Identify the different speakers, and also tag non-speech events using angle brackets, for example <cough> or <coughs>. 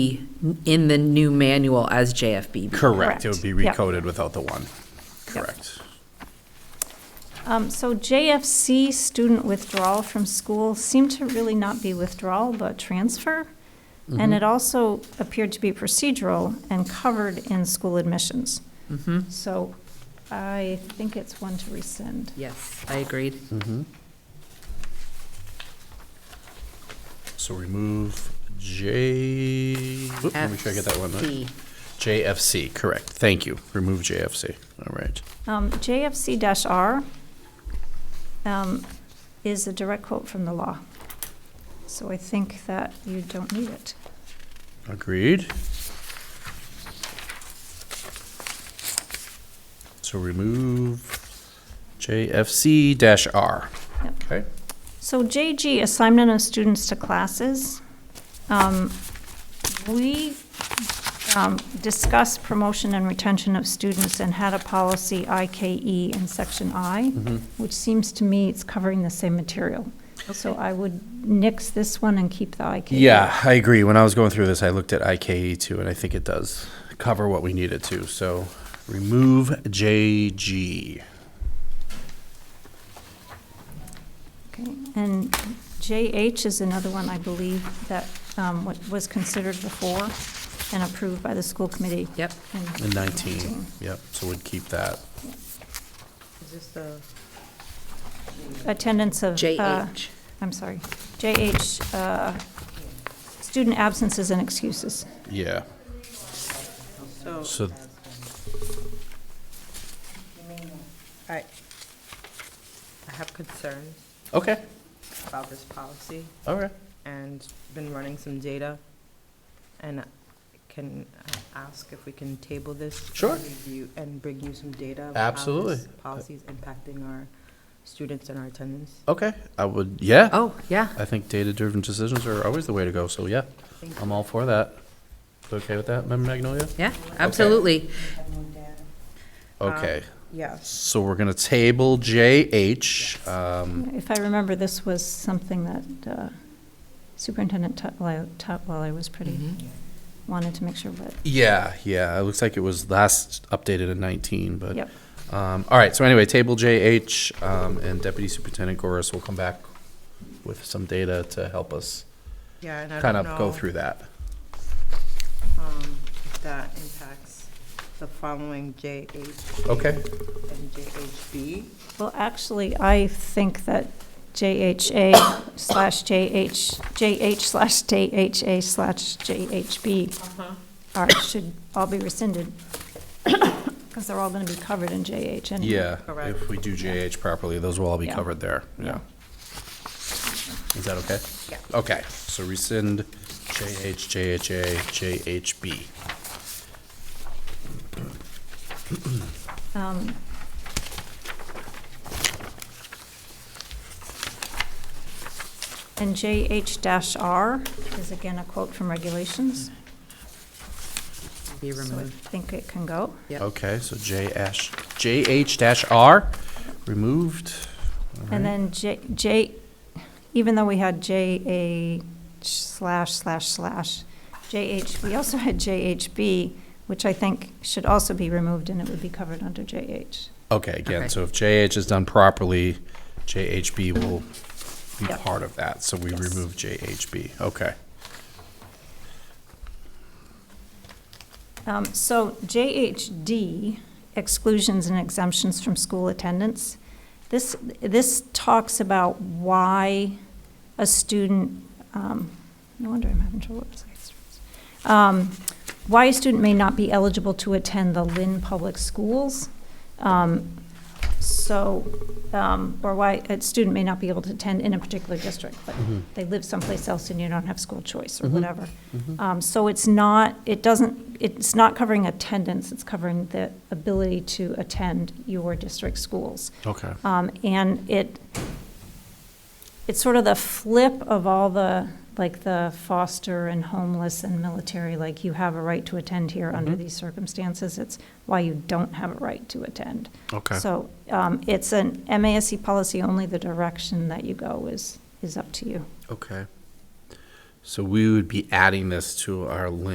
Speaker 1: in the new manual as JFBB.
Speaker 2: Correct.
Speaker 3: Correct.
Speaker 2: It would be
Speaker 3: Yep.
Speaker 2: recoded without the one.
Speaker 3: Yep.
Speaker 2: Correct.
Speaker 3: Um, So JFC, student withdrawal from school, seemed to really not be withdrawal, but transfer. And it also appeared to be procedural and covered in school admissions. So I think it's one to rescind.
Speaker 1: Yes, I agreed.
Speaker 2: So remove J. Oop, Let me try to get that one. right.
Speaker 1: FC.
Speaker 2: JFC, correct. Thank you. Remove JFC. All right.
Speaker 3: Um, JFC-R um, is a direct quote from the law. So I think that you don't need it.
Speaker 2: Agreed. So remove JFC dash R.
Speaker 3: Yep.
Speaker 2: Okay.
Speaker 3: So JG, assignment of students to classes. Um, We um, discussed promotion and retention of students and had a policy IKE in section I, which seems to me it's covering the same material. So I would nix this one and keep the E. IKE.
Speaker 2: Yeah, I agree. When I was going through this, I looked at IKE too, and I think it does cover what we need it to. So remove JG.
Speaker 3: Okay. And JH is another one, I believe, that um, wa- was considered before and approved by the school committee.
Speaker 1: Yep.
Speaker 3: in
Speaker 2: And 19, yep, so we'd keep that.
Speaker 3: Attendance of. uh,
Speaker 1: JH.
Speaker 3: I'm sorry, JH, uh, student absences and excuses.
Speaker 2: Yeah. So,
Speaker 4: I, I have concerns
Speaker 2: okay,
Speaker 4: about this policy
Speaker 2: all right.
Speaker 4: and been running some data. And can I ask if we can table this? and
Speaker 2: Sure.
Speaker 4: review- And bring you some data? of
Speaker 2: Absolutely.
Speaker 4: How this policy is impacting our students and our attendance.
Speaker 2: Okay, I would, yeah.
Speaker 1: Oh, yeah.
Speaker 2: I think data-driven decisions are always the way to go, so yeah, I'm all for that. Okay with that, Member Magnolia?
Speaker 1: Yeah, absolutely.
Speaker 2: Okay,
Speaker 4: Yes.
Speaker 2: so we're gonna table JH. Um,
Speaker 3: If I remember, this was something that uh, Superintendent Tutwiler Tutwiler was pretty, wanted to make sure, but,
Speaker 2: Yeah, yeah, it looks like it was last updated in 19, but.
Speaker 3: yep.
Speaker 2: Um, all right, so anyway, table JH, um, and Deputy Superintendent Goris will come back with some data to help us
Speaker 4: Yeah, and I
Speaker 2: kind
Speaker 4: don't
Speaker 2: of go
Speaker 4: know,
Speaker 2: through that.
Speaker 4: um, if that impacts the following JH
Speaker 2: Okay,
Speaker 4: and JHB.
Speaker 3: Well, actually, I think that JHA slash JH, JH slash JHA slash JHB are, should all be rescinded, <coughs> because they're all going to be covered in JH anyway.
Speaker 2: yeah,
Speaker 4: Correct.
Speaker 2: if we do JH properly, those will all be
Speaker 3: Yeah.
Speaker 2: covered there, yeah. Is that okay?
Speaker 4: Yeah.
Speaker 2: Okay, so rescind JH, JHA, JHB.
Speaker 3: Um, And JH-R is again a quote from regulations,
Speaker 1: Be
Speaker 3: so I
Speaker 1: removed.
Speaker 3: think it can go.
Speaker 1: Yep.
Speaker 2: Okay, so JH, JH dash R, removed.
Speaker 3: And then J, J, even though we had JA slash slash slash, JH, we also had JHB, which I think should also be removed and it would be covered under JH.
Speaker 2: Okay, again,
Speaker 1: Okay.
Speaker 2: so if JH is done properly, JHB will be
Speaker 3: Yep.
Speaker 2: part of that, so we remove JHB, okay.
Speaker 3: Um, So JHD, exclusions and exemptions from school attendance. This, this talks about why a student, um, no wonder I'm having trouble with this. Um, Why a student may not be eligible to attend the Lynn Public Schools. Um, So, um, or why a student may not be able to attend in a particular district, but they live someplace else and you don't have school choice or whatever. Um, So it's not, it doesn't, it's not covering attendance, it's covering the ability to attend your district schools.
Speaker 2: Okay.
Speaker 3: Um, And it, it's sort of the flip of all the, like the foster and homeless and military, like you have a right to attend here under these circumstances. It's why you don't have a right to attend.
Speaker 2: Okay.
Speaker 3: So um, it's an MASC policy, only the direction that you go is, is up to you.
Speaker 2: Okay. So we would be adding this to our list